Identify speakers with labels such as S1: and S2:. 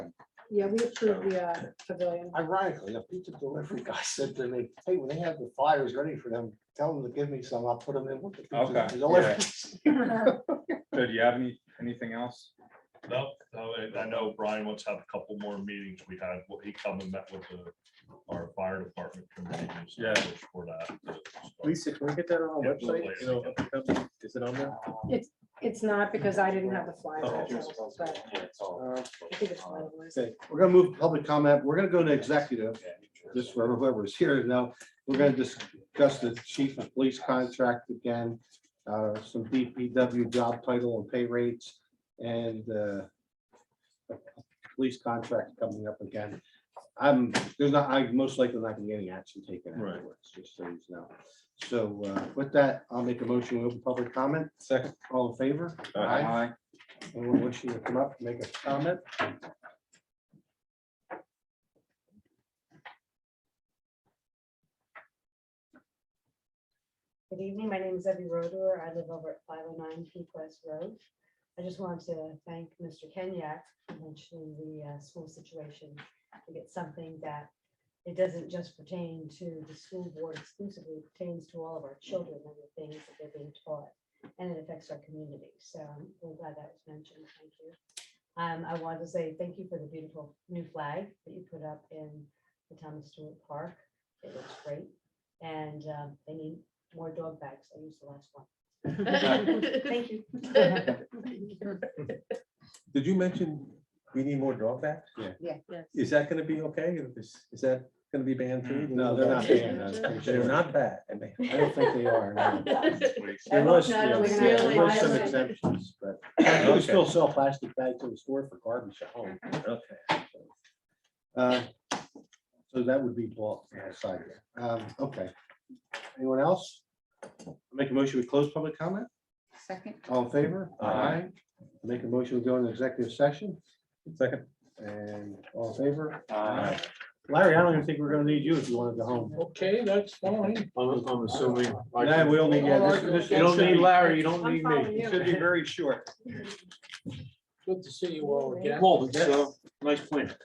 S1: Yeah, we approved the uh, pavilion.
S2: Ironically, a pizza delivery guy said to me, hey, when they have the flyers ready for them, tell them to give me some, I'll put them in with the pizza
S3: Okay,
S2: deliveries."
S3: So do you have any, anything else?
S4: No, no, and I know Brian wants to have a couple more meetings. We had, well, he come and met with the, our fire department committee. and stuff
S5: Yeah.
S4: For that.
S5: Lisa, can we get that on our
S4: Yeah, we'll
S5: website? You know, up and up? Is it on there?
S1: It's not because I didn't have the flyer.
S5: Oh.
S1: actually, but
S5: Uh,
S1: I think it's one of those.
S5: Okay.
S2: We're gonna move to public comment, we're gonna go to executive, just for whoever's here now, we're gonna discuss the chief of police contract again. Uh, some DPW job title and pay rates and, uh. Police contract coming up again. I'm, there's not, I most likely not gonna get any action taken
S3: Right.
S2: afterwards, just so you know. So, uh, with that, I'll make a motion, to open public comment,
S5: Second.
S2: all in favor?
S3: Uh, Aye.
S2: Anyone wishing to come up, make a comment?
S6: Good evening, my name is Evie Roder. I live over at five oh nine Peak West Road. I just wanted to thank Mr. Kenyak for mentioning the uh, school situation. I think it's something that it doesn't just pertain to the school board exclusively, it pertains to all of our children and the things that they're being taught. And it affects our community, so I'm glad that was mentioned. Thank you. Um, I wanted to say thank you for the beautiful new flag that you put up in the town of Stewart Park. It looks great. And um, they need more dog bags. I used the last one. Thank you.
S5: Did you mention we need more drawback?
S2: Yeah.
S6: Yeah.
S5: Is that gonna be okay? Is, is that gonna be banned too?
S2: No, they're not paying us.
S5: They're not bad. and they-
S2: I don't think they are. no.
S5: There was- yeah,
S2: There
S1: Really?
S2: were some
S1: Really?
S2: exemptions, but you can still sell plastic bags in the store for garbage at home.
S5: Okay.
S2: Uh, So that would be blocked from the side. Um, Okay. Anyone else? Make a motion to close public comment?
S7: Second.
S2: All in favor?
S5: Aye.
S2: Make a motion to go into executive session
S5: Second.
S2: and all in favor?
S5: Aye.
S2: Larry, I don't even think we're gonna need you if you want to go home.
S8: Okay, that's fine. I'm, I'm assuming. I
S2: Yeah,
S8: can-
S2: we only, yeah, this- this-
S8: You don't need Larry, you don't
S1: I'm
S8: need
S1: following
S8: me.
S1: you.
S2: should be very short.
S8: Good to see you all again.
S1: Well,
S8: it's, uh, nice plan.